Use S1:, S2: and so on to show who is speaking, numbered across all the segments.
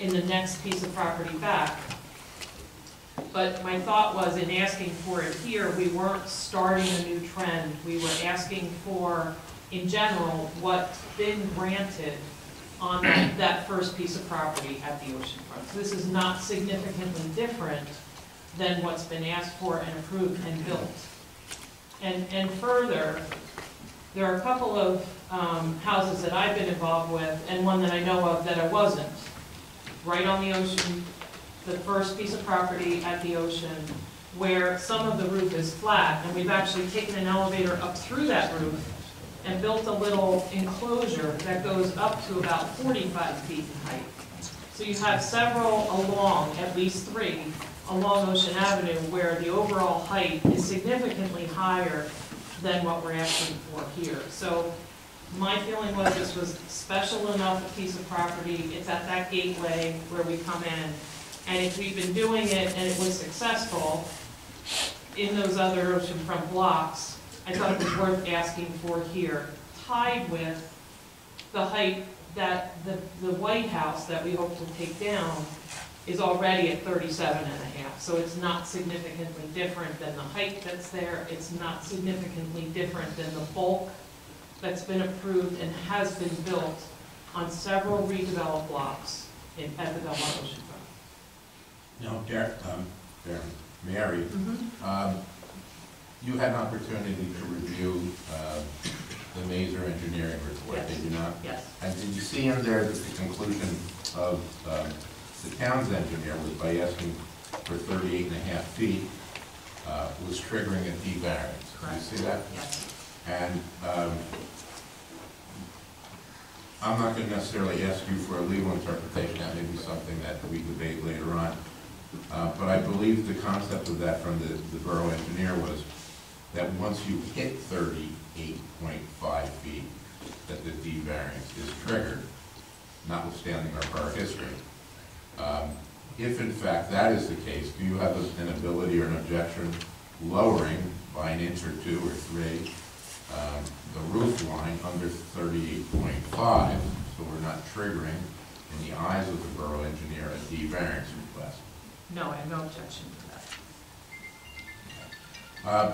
S1: in the next piece of property back. But my thought was in asking for it here, we weren't starting a new trend. We were asking for, in general, what's been granted on that, that first piece of property at the oceanfront. So This is not significantly different than what's been asked for and approved and built. And, and further, there are a couple of um, houses that I've been involved with, and one that I know of that I wasn't. Right on the ocean, the first piece of property at the ocean, where some of the roof is flat, and we've actually taken an elevator up through that roof and built a little enclosure that goes up to about 45 feet in height. So you have several along, at least three, along Ocean Avenue where the overall height is significantly higher than what we're asking for here. So my feeling was this was special enough a piece of property, it's at that gateway where we come in. And if we've been doing it and it was successful in those other oceanfront blocks, I thought it was worth asking for here, tied with the height that the, the White House that we hope to take down is already at 37 and a half, so it's not significantly different than the height that's there, it's not significantly different than the bulk that's been approved and has been built on several redeveloped blocks in, at the Belmont Oceanfront.
S2: No, Dar, um, Darren, Mary, um, you had an opportunity to review, uh, the Mazer engineering report, did you not?
S1: Yes,
S2: And did you see in there that the conclusion of, um, the town's engineer was by asking for thirty-eight and a half feet, uh, was triggering a D variance?
S1: Correct.
S2: Did you see that?
S1: yes,
S2: And um, I'm not going to necessarily ask you for a legal interpretation, that may be something that we debate later on. Uh, But I believe the concept of that from the the borough engineer was that once you hit 38.5 feet, that the D variance is triggered, notwithstanding our prior history. Um, If in fact that is the case, do you have an ability or an objection lowering by an inch or two or three um, the roof line under 38.5, so we're not triggering, in the eyes of the borough engineer, a D variance request?
S1: no, I have no objection to that.
S2: Uh,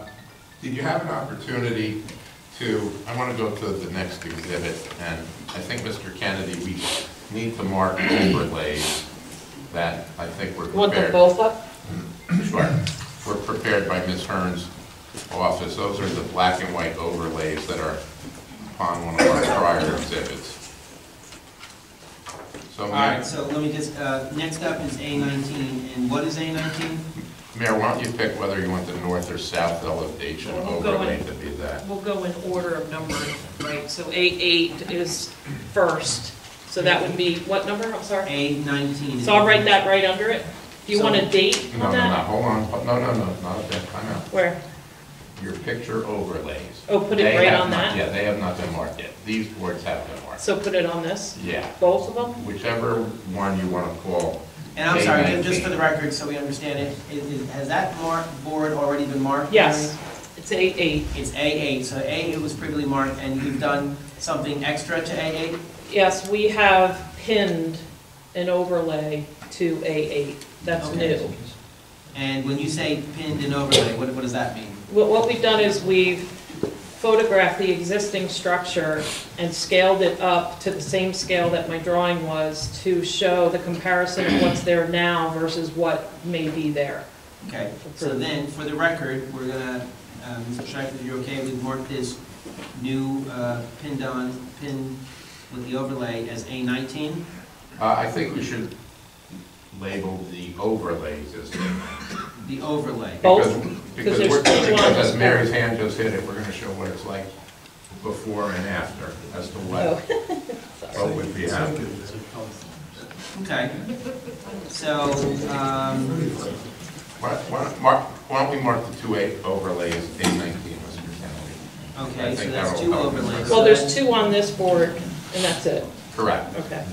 S2: Did you have an opportunity to, I want to go to the next exhibit, and I think, Mr. Kennedy, we need to mark overlays that I think were prepared.
S3: Want them both up?
S2: Sure. Were prepared by Ms. Hearn's office. Those are the black and white overlays that are upon one of our prior exhibits. So,
S4: All
S2: Mayor,
S4: right, so let me just, uh, next up is A nineteen, and what is A nineteen?
S2: Mayor, why don't you pick whether you want the north or south elevation
S1: We'll go
S2: overlay
S1: in-
S2: to be that?
S1: We'll go in order of numbering, right,
S3: So A8 is first, so that would be, what number, I'm sorry?
S4: A nineteen.
S3: So I'll write that right under it. Do you want a date
S2: No,
S3: on
S2: no, no,
S3: that?
S2: hold on, Oh, no, no, no, not at that time out.
S3: Where?
S2: Your picture overlays.
S3: Oh, put it
S2: They
S3: right
S2: have
S3: on
S2: not-
S3: that?
S2: Yeah, they have not been marked yet. These boards have been marked.
S3: So put it on this,
S2: Yeah,
S3: both of them?
S2: whichever one you want to call.
S4: And I'm sorry,
S2: A19.
S4: ju- just for the record, so we understand it, is- is- has that mark, board already been marked?
S3: Yes, it's A8.
S4: It's A eight, so A eight was previously marked, and you've done something extra to A eight?
S3: Yes, we have pinned an overlay to A8. That's
S4: Okay.
S3: new.
S4: And when you say pinned and overlay, what, what does that mean?
S3: What, what we've done is we've photographed the existing structure and scaled it up to the same scale that my drawing was to show the comparison of what's there now versus what may be there.
S4: Okay, so then, for the record, we're gonna, um, Mr. Schreiber, if you're okay, we've marked this new, uh, pinned on, pin with the overlay as A nineteen?
S2: Uh, I think we should label the overlays as.
S4: The overlay.
S3: Both?
S2: because-
S3: Because
S2: Because
S3: there's
S2: we're,
S3: two
S2: because as
S3: lines.
S2: Mary's hand just hit it, we're gonna show what it's like before and after, as to
S3: Oh,
S2: what, what would be happening.
S4: Okay. So, um,
S2: Why, why don't- Mark, why don't we mark the two eight overlays, A nineteen, Mr. Kennedy? I
S4: okay, so
S2: think
S4: that's
S2: that'll
S4: two
S2: help.
S4: overlays.
S3: Well, there's two on this board, and that's it.
S2: Correct.
S3: Okay.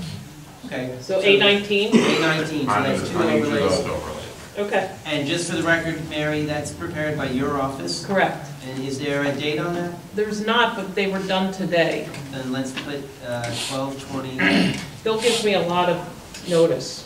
S4: Okay.
S3: So A19?
S4: A nineteen, so
S2: On
S4: that's
S2: the-
S4: two
S2: on each of those
S4: overlays.
S2: overlays.
S3: Okay,
S4: And just for the record, Mary, that's prepared by your office.
S3: correct.
S4: And is there a date on that?
S3: There's not, but they were done today.
S4: Then let's put, uh, twelve twenty
S3: Bill gives me a lot of notice.